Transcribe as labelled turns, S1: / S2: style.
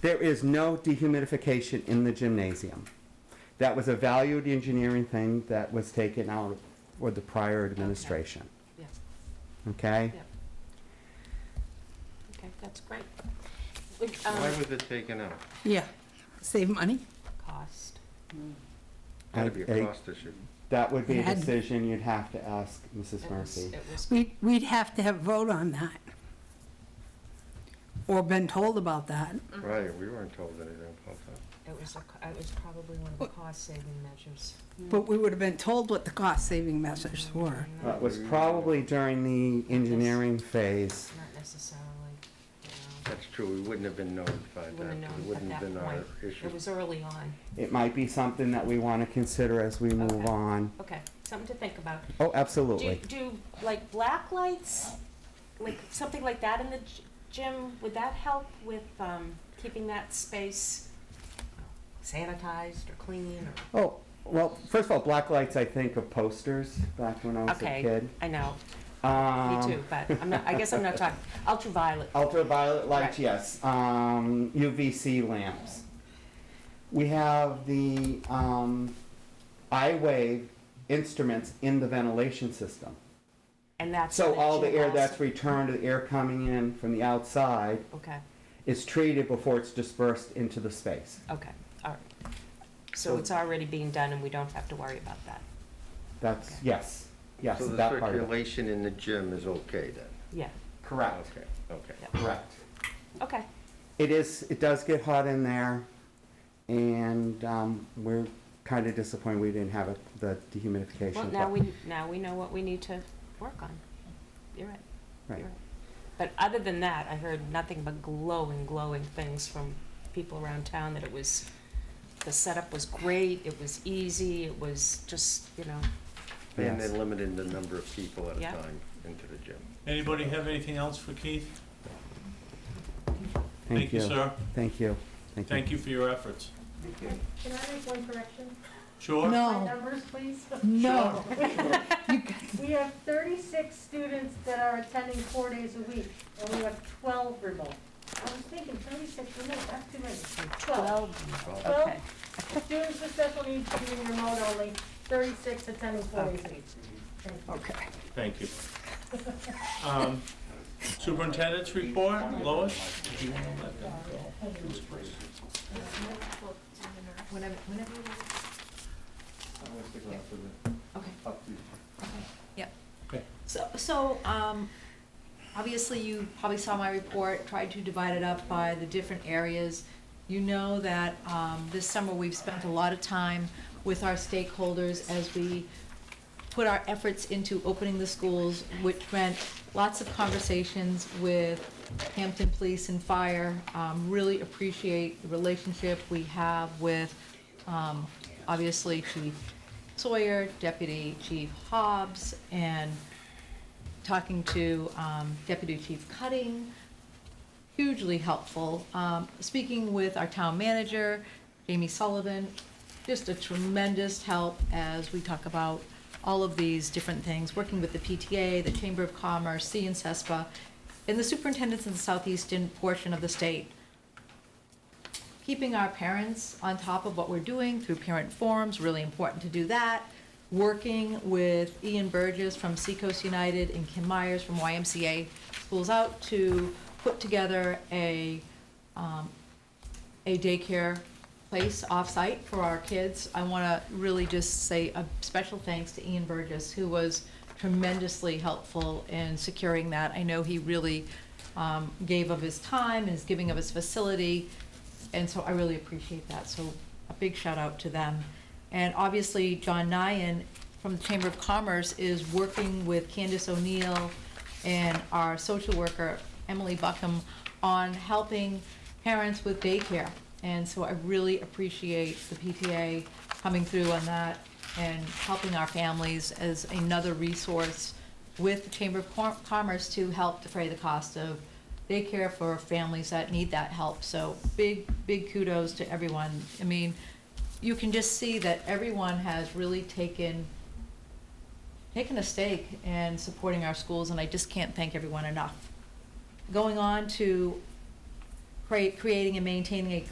S1: There is no dehumidification in the gymnasium. That was a valued engineering thing that was taken out with the prior administration,
S2: Yeah,
S1: okay?
S2: yeah. Okay, that's great. Would,
S3: Why
S2: um,
S3: was it taken out?
S4: Yeah, save money.
S2: Cost.
S3: Had to be
S1: I- I-
S3: a cost issue.
S1: That would be a
S4: It had-
S1: decision you'd have to ask Mrs.
S2: It was-
S1: Murphy.
S2: It was,
S4: We'd, we'd have to have a vote on that. Or been told about that.
S2: Mm-hmm.
S3: Right, we weren't told anything about that.
S2: it was, a co- it was probably one of the cost-saving measures.
S4: But we would have been told what the cost-saving measures were.
S1: That was probably during the engineering phase.
S2: Not necessarily, you know,
S3: That's true, we wouldn't have been notified
S2: you
S3: that,
S2: wouldn't
S3: 'cause
S2: have
S3: uh, it
S2: known at
S3: wouldn't have been
S2: that
S3: our
S2: point.
S3: issue.
S2: It was early on.
S1: It might be something that we want to consider as we move
S2: Okay.
S1: on.
S2: Okay, something to think about.
S1: Oh,
S2: Do,
S1: absolutely.
S2: do, like, black lights, like, something like that in the g- gym, would that help with, um, keeping that space sanitized or clean or?
S1: Oh, well, first of all, black lights, I think of posters back when I was a
S2: Okay,
S1: kid.
S2: I know, me
S1: Um,
S2: too, but I'm not, I guess I'm not talking, ultraviolet,
S1: Ultraviolet lights,
S2: Right.
S1: yes. Um, UVC lamps. We have the um, I wave instruments in the ventilation system.
S2: and that's.
S1: So all the air that's
S2: re.
S1: returned, the air coming in from the outside,
S2: Okay,
S1: is treated before it's dispersed into the space.
S2: okay, all right. So
S1: So-
S2: it's already being done and we don't have to worry about that,
S1: That's, yes, yes,
S3: So the
S1: that part of it.
S3: circulation in the gym is okay then?
S2: yeah,
S1: Correct,
S3: Okay, okay.
S2: Yeah.
S1: correct.
S2: okay,
S1: It is, it does get hot in there, and um, we're kind of disappointed we didn't have it- the dehumidification.
S2: well, now
S1: but-
S2: we, now we know what we need to work on, you're right, you're
S1: Right.
S2: right. But other than that, I heard nothing but glowing, glowing things from people around town, that it was, the setup was great, it was easy, it was just, you know,
S3: And
S1: Yes.
S3: then limiting the number of people at a
S2: Yeah.
S3: time into the gym.
S5: Anybody have anything else for Keith?
S1: Thank you.
S5: sir.
S1: Thank you.
S5: Thank you for your efforts.
S6: Can I make one correction?
S5: Sure?
S6: My
S4: No,
S6: numbers, please.
S4: no.
S6: We have 36 students that are attending four days a week, and we have 12 remote. I was thinking 36 remote, that's too many. 12.
S2: well,
S3: Well,
S6: Well,
S2: okay.
S6: Students with special needs doing remote only, 36 attending four days a week. Thank you.
S4: Okay.
S5: Thank you. Um, Superintendent's report, Lois? Do you wanna let them go?
S2: Whenever, whenever. you want. Okay.
S7: Yep.
S5: Okay.
S7: So, so, um, obviously you probably saw my report, tried to divide it up by the different areas. You know that, um, this summer we've spent a lot of time with our stakeholders as we put our efforts into opening the schools, which meant lots of conversations with Hampton Police and Fire. Um, really appreciate the relationship we have with, um, obviously Chief Sawyer, Deputy Chief Hobbs, and talking to, um, Deputy Chief Cutting, hugely helpful. Um, Speaking with our town manager, Jamie Sullivan, just a tremendous help as we talk about all of these different things, working with the PTA, the Chamber of Commerce, C and E CESPA, and the superintendents in the southeastern portion of the state keeping our parents on top of what we're doing through parent forums, really important to do that. Working with Ian Burgess from Seacoast United and Kim Myers from YMCA Schools Out to put together a, um, a daycare place off-site for our kids. I want to really just say a special thanks to Ian Burgess, who was tremendously helpful in securing that. I know he really um, gave of his time, and is giving of his facility, and so I really appreciate that, so a big shout out to them. And obviously, John Nyan from the Chamber of Commerce is working with Candace O'Neill and our social worker, Emily Buckham, on helping parents with daycare. And so I really appreciate the PTA coming through on that and helping our families as another resource with the Chamber of Com- Commerce to help defray the cost of daycare for families that need that help. So big, big kudos to everyone. I mean, you can just see that everyone has really taken, taken a stake in supporting our schools, and I just can't thank everyone enough. Going on to create, creating and maintaining a